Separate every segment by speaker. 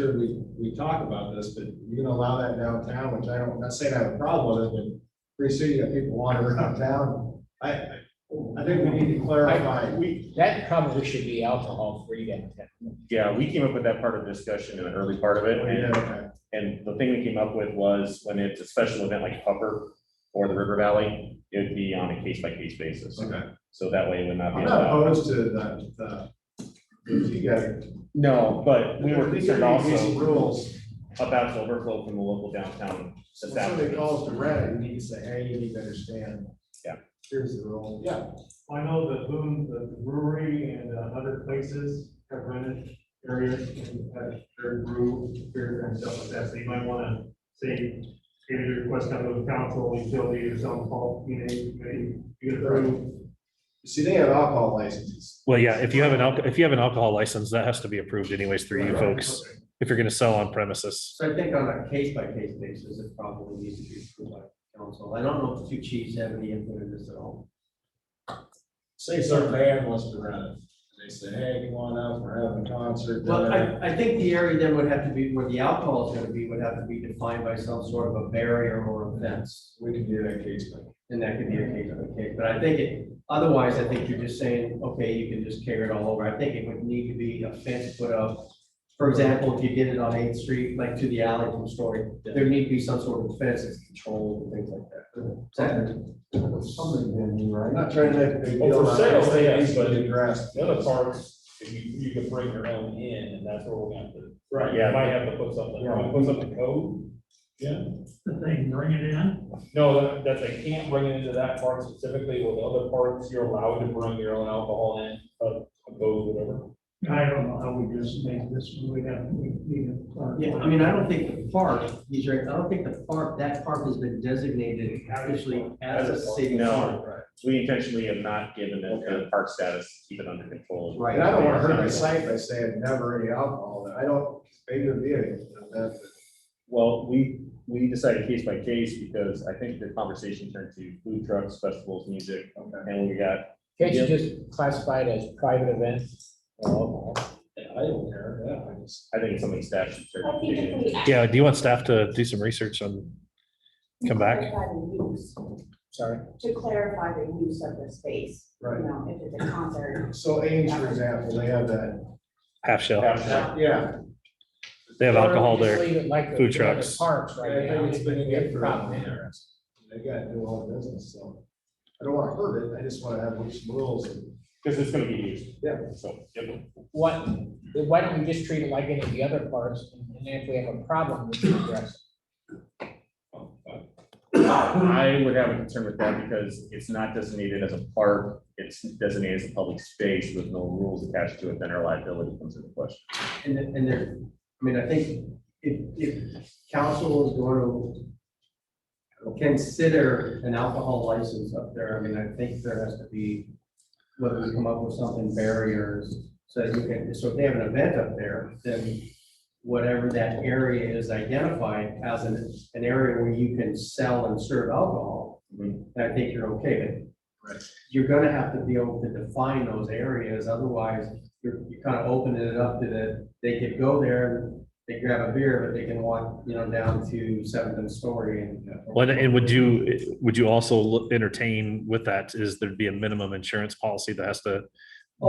Speaker 1: sure we, we talk about this, but you're gonna allow that downtown, which I don't, I'm not saying I have a problem with it, but pretty soon you got people wandering around town. I, I I think we need to clarify.
Speaker 2: We, that probably should be alcohol free downtown.
Speaker 3: Yeah, we came up with that part of the discussion in the early part of it,
Speaker 4: Oh,
Speaker 3: and,
Speaker 1: Yeah,
Speaker 3: and the thing we came up with was when it's a special event like Pupper or the River Valley, it'd be on a case by case basis.
Speaker 1: Okay.
Speaker 3: So that way it would not be.
Speaker 1: I'm not
Speaker 3: allowed.
Speaker 1: opposed to that, uh, if you guys.
Speaker 3: No, but we were
Speaker 1: If
Speaker 3: concerned
Speaker 1: there needs to be some
Speaker 3: also
Speaker 1: Rules,
Speaker 3: about the overflow from the local downtown
Speaker 1: when somebody
Speaker 3: establishment.
Speaker 1: calls to rent, you need to say, hey, you need to understand.
Speaker 3: Yeah.
Speaker 1: Here's the rule, yeah.
Speaker 5: I know that Boone, the brewery and uh, other places have rented areas and have their brew beer and stuff like that, so you might wanna say, give your request out to the council, utility or some fault, you know, maybe you can approve.
Speaker 1: See, they have alcohol licenses.
Speaker 6: Well, yeah, if you have an alcohol, if you have an alcohol license, that has to be approved anyways through you folks, if you're gonna sell on premises.
Speaker 7: So I think on a case by case basis, it probably needs to be approved by council. I don't know if the two chiefs have any input in this at all.
Speaker 1: Say some band wants to rent it, they say, hey, come on out, we're having a concert.
Speaker 7: Well,
Speaker 1: da-da-da.
Speaker 7: I, I think the area then would have to be, where the alcohol is gonna be, would have to be defined by some sort of a barrier or a fence.
Speaker 1: We can do that case by
Speaker 7: And that could be a case by case, but I think it, otherwise, I think you're just saying, okay, you can just carry it all over. I think it would need to be a fence put up. For example, if you did it on Eighth Street, like to the alley from Story, there need to be some sort of fence that's controlled and things like that. Exactly.
Speaker 1: I'm not trying to make a big
Speaker 4: Well,
Speaker 1: deal.
Speaker 4: for
Speaker 1: out of
Speaker 4: sales,
Speaker 1: it,
Speaker 4: yes,
Speaker 1: it's
Speaker 4: but-
Speaker 1: been addressed.
Speaker 4: The other parts, if you, you can bring your own in, and that's where we're gonna have to.
Speaker 3: Right,
Speaker 4: You Might have to put something,
Speaker 3: Yeah.
Speaker 4: put something code. Yeah.
Speaker 5: The thing, bring it in.
Speaker 4: No, that- that's, I can't bring it into that part specifically, with the other parts, you're allowed to bring your own alcohol in, uh, code, whatever.
Speaker 5: I don't know how we just make this, we have, we need to clarify.
Speaker 7: Yeah, I mean, I don't think the park, these are, I don't think the park, that park has been designated officially as a city
Speaker 3: No.
Speaker 7: park.
Speaker 3: We intentionally have not given it the park status, keep it under control.
Speaker 7: Right.
Speaker 1: And I don't wanna hurt my site by saying never any alcohol, I don't, maybe it'd be any, that,
Speaker 3: Well, we, we decided case by case because I think the conversation turned to food trucks, festivals, music,
Speaker 1: okay.
Speaker 3: and we got,
Speaker 2: Can't you just classify it as private event? or alcohol?
Speaker 1: I don't care, yeah, I just.
Speaker 3: I think it's something staff should. start
Speaker 8: I think
Speaker 3: digging
Speaker 8: if
Speaker 3: into.
Speaker 8: we. add
Speaker 6: Yeah, do you want staff to do some research on, come back?
Speaker 8: to clarify the use,
Speaker 2: Sorry.
Speaker 8: To clarify the use of the space, you
Speaker 1: Right,
Speaker 8: know, if it's a concert.
Speaker 1: so Ames, for example, they have that,
Speaker 6: half shell?
Speaker 1: yeah.
Speaker 6: They have alcohol
Speaker 2: Or we just
Speaker 6: there.
Speaker 2: leave it like the-
Speaker 6: food
Speaker 2: the other
Speaker 6: trucks.
Speaker 2: Parks
Speaker 1: I
Speaker 2: right now.
Speaker 1: think it's been
Speaker 2: We have
Speaker 1: good
Speaker 2: a
Speaker 1: for
Speaker 2: problem
Speaker 1: them.
Speaker 2: there.
Speaker 1: They gotta do all the business, so. I don't wanna hurt it, I just wanna have some rules and.
Speaker 3: Because it's gonna be used.
Speaker 1: Yeah.
Speaker 3: So, yep.
Speaker 2: What, then why don't we just treat it like any of the other parks, and then if we have a problem, we can address it.
Speaker 3: I would have a concern with that because it's not designated as a park, it's designated as a public space with no rules attached to it, then our liability comes into question.
Speaker 7: And, then- and there, I mean, I think if, if council is going to consider an alcohol license up there, I mean, I think there has to be, whether we come up with something barriers, so that you can, so if they have an event up there, then whatever that area is identified as an, an area where you can sell and serve alcohol,
Speaker 3: Mhm.
Speaker 7: then I think you're okay, but
Speaker 1: Right.
Speaker 7: you're gonna have to be able to define those areas, otherwise you're, you're kind of opening it up to the, they could go there, they grab a beer, but they can walk, you know, down to Seventh and Story and.
Speaker 6: Well, and would you, would you also look- entertain with that is there'd be a minimum insurance policy that has to,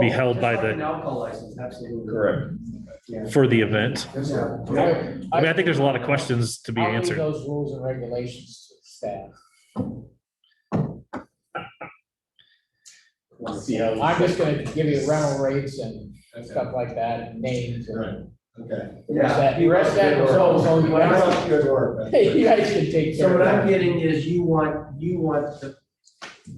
Speaker 6: be
Speaker 7: Oh,
Speaker 6: held
Speaker 7: just
Speaker 6: by
Speaker 7: like
Speaker 6: the-
Speaker 7: An alcohol license, absolutely.
Speaker 3: Correct.
Speaker 7: Yeah.
Speaker 6: for the event?
Speaker 7: Yeah.
Speaker 6: I mean, I think there's a lot of questions to be
Speaker 2: I'll leave
Speaker 6: answered.
Speaker 2: Those rules and regulations to staff.
Speaker 3: We'll see how-
Speaker 2: I'm just gonna give you rental rates and
Speaker 1: Okay,
Speaker 2: stuff like that, and names. and-
Speaker 1: Right. okay.
Speaker 2: The rest that- the rest that was all- so you
Speaker 1: Well,
Speaker 2: guys-
Speaker 1: that's Good work.
Speaker 2: Hey, you guys can take
Speaker 7: So
Speaker 2: care
Speaker 7: what
Speaker 2: of
Speaker 7: I'm
Speaker 2: that.
Speaker 7: getting is you want, you want the,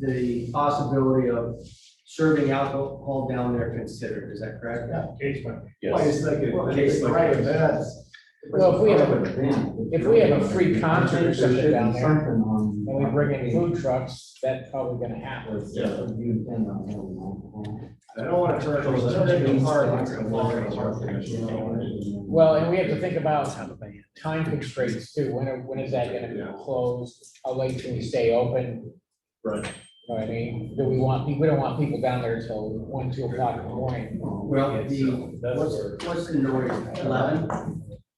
Speaker 7: the possibility of serving alcohol down there considered, is that correct?
Speaker 5: Case by
Speaker 1: Well, I
Speaker 3: Yes.
Speaker 1: just think it-
Speaker 7: Well, case by
Speaker 1: right,
Speaker 7: case.
Speaker 1: that's-
Speaker 2: Well, if we have If we have a free concert or something down there, and we bring in food trucks, that's probably gonna happen.
Speaker 1: Yeah. I don't wanna turn those, I don't think it's hard, like, I'm walking on our commission, I don't wanna do that.
Speaker 2: Well, and we have to think about time constraints too, when, are- when is that gonna be
Speaker 1: Yeah.
Speaker 2: closed, how late can we stay open?
Speaker 1: Right.
Speaker 2: You know what I mean, do we want, we don't want people down there till one, two o'clock in the morning.
Speaker 7: Well, the,
Speaker 4: That's
Speaker 7: what's,
Speaker 4: where-
Speaker 7: what's the noise, eleven?